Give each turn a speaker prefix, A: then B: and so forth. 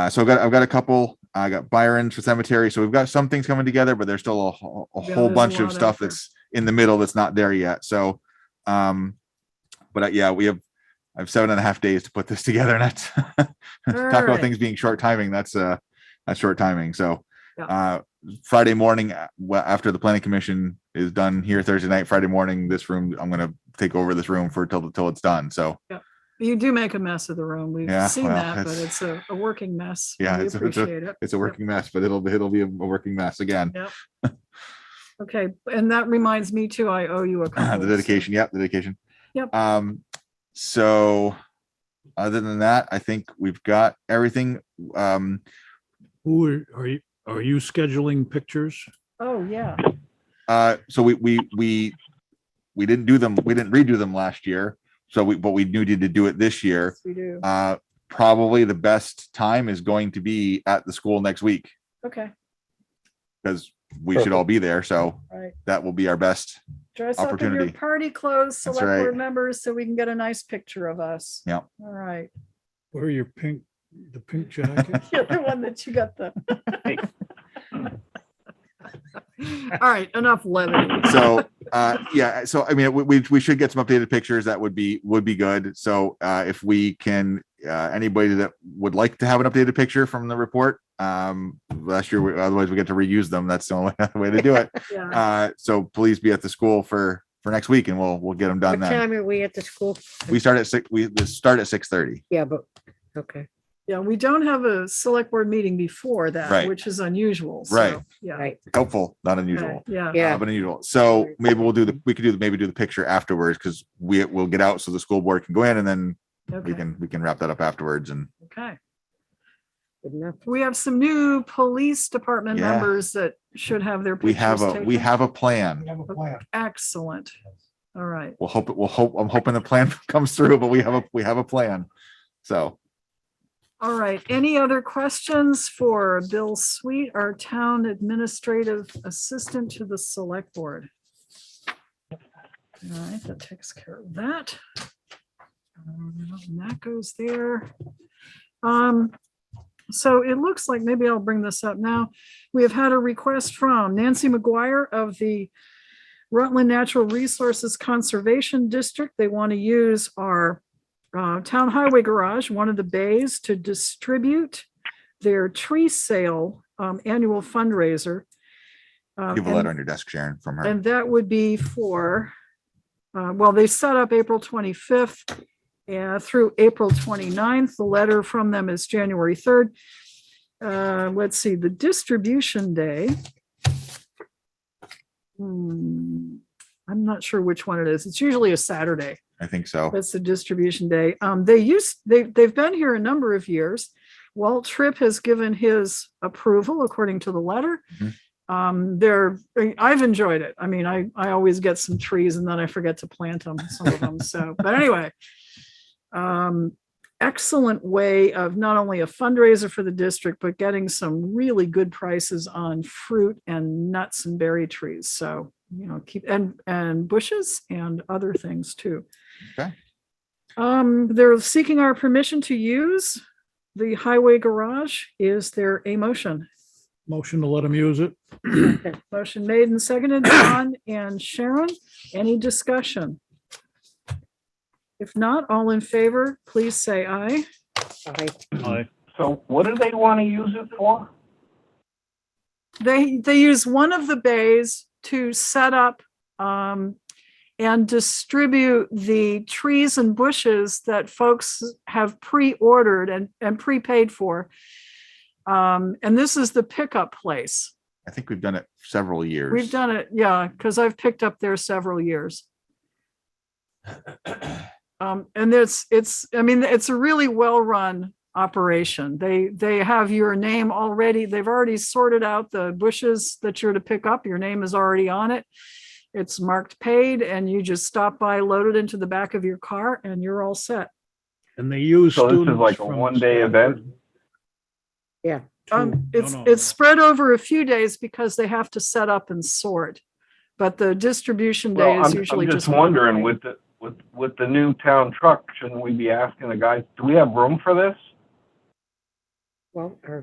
A: Uh, so I've got I've got a couple. I got Byron's for cemetery. So we've got some things coming together, but there's still a, whole- a
B: Yeah,
A: whole
B: there's a
A: bunch
B: lot
A: of
B: out
A: stuff
B: there.
A: that's in the middle that's not there yet. So, um, but uh, yeah, we have I have seven and a half days to put this together, and that's talk about
B: Alright.
A: things being short timing. That's uh that's short timing. So
B: Yeah.
A: uh Friday morning, uh, well, after the planning commission is done here Thursday night, Friday morning, this room I'm gonna take over this room for till till it's done. So
B: You do make a mess of the room. We've
A: Yeah,
B: seen
A: well,
B: that, but
A: it's-
B: it's a, a working mess.
A: Yeah,
B: We
A: it's a- it's a-
B: appreciate it.
A: it's a working mess, but it'll be it'll be a working mess again.
B: Okay, and that reminds me too, I owe you a. couple,
A: the
B: so-
A: dedication. Yep, the dedication.
B: Yep.
A: Um, so other than that, I think we've got everything. Um,
C: Who are, are you, are you scheduling pictures?
B: Oh, yeah.
A: uh, so we we we we didn't do them. We didn't redo them last year. So we but we needed to do it this year.
B: We do.
A: Uh, probably the best time is going to be at the school next week
B: Okay,
A: because we should all be there. So
B: all right.
A: that will be our best.
B: Dress up in your
A: Opportunity.
B: party clothes,
A: That's
B: select board
A: right.
B: members, so we can get a nice picture of us.
A: Yeah.
B: All right.
C: Where are your pink, the pink jacket?
B: You're the one that you got the. All right, enough levity.
A: so uh yeah so i mean we, we we should get some updated pictures that would be would be good so uh if we can uh anybody that would like to have an updated picture from the report um last year we, otherwise we get to reuse them that's the only way to do it
B: Yeah.
A: uh so please be at the school for for next week and we'll we'll get them done
D: What
A: then
D: time are we at the school?
A: we start at six we we start at six thirty.
D: Yeah, but, okay,
B: Yeah, we don't have a select board meeting before that,
A: Right.
B: which is unusual. so,
A: Right.
B: Yeah.
D: right,
A: helpful not unusual
B: okay, Yeah.
A: yeah.
D: yeah,
A: but unusual. So maybe we'll do the, we could do the, maybe do the picture afterwards because we will get out so the school board can go in and then we
B: Okay.
A: can, we can wrap that up afterwards and
B: Okay.
D: good enough.
B: We have some new police department
A: Yeah.
B: members that should have their
A: we
B: pictures
A: have a, we
B: taken.
A: have a plan.
B: Excellent. All right.
A: We'll hope, we'll hope, I'm hoping the plan comes through, but we have a, we have a plan. So,
B: All right. Any other questions for Bill Sweet, our town administrative assistant to the select board? All right, that takes care of that. Um, and That goes there. Um, so it looks like, maybe I'll bring this up now. We have had a request from Nancy McGuire of the Rutland Natural Resources Conservation District. They want to use our uh, Town Highway Garage, one of the bays, to distribute their tree sale um, annual fundraiser. Um,
A: you have a
B: and-
A: letter on your desk, Sharon, from her.
B: and that would be for, uh, well, they set up April 25th and through April 29th. The letter from them is January 3rd. Uh, Let's see, the distribution day. Hmm, I'm not sure which one it is. It's usually a Saturday.
A: I think so.
B: That's the distribution day. Um, they used, they, they've been here a number of years. Walt Tripp has given his approval according to the letter.
A: Mhm.
B: Um, they're, I- I've enjoyed it. I mean, I, I always get some trees and then I forget to plant them, some of them. So, but anyway. Um, excellent way of not only a fundraiser for the district, but getting some really good prices on fruit and nuts and berry trees. So, you know, keep, and, and bushes and other things too.
A: Okay.
B: Um, they're seeking our permission to use the highway garage. Is there a motion?
C: Motion to let them use it?
B: Motion made and seconded, John and Sharon. Any discussion? If not, all in favor, please say aye.
D: Aye.
C: Aye.
E: So what do they want to use it for?
B: They, they use one of the bays to set up um, and distribute the trees and bushes that folks have pre-ordered and, and prepaid for. Um, and this is the pickup place.
A: I think we've done it several years.
B: We've done it, yeah, because I've picked up there several years. Um, and it's, it's, I mean, it's a really well-run operation. They, they have your name already. They've already sorted out the bushes that you're to pick up. Your name is already on it. It's marked paid and you just stop by, load it into the back of your car and you're all set.
C: And they use
E: So this is
C: students
E: like a
C: from
E: one-day
C: Stanford.
D: Yeah.
C: Two- no,
B: Um, it's,
C: no,
B: it's
C: no.
B: spread over a few days because they have to set up and sort. But the distribution
E: Well,
B: day
E: I'm,
B: is usually
E: I'm
B: just.
E: just
B: one
E: wondering
B: day.
E: with the, with, with the new town truck, shouldn't we be asking the guys, do we have room for this?
D: well, our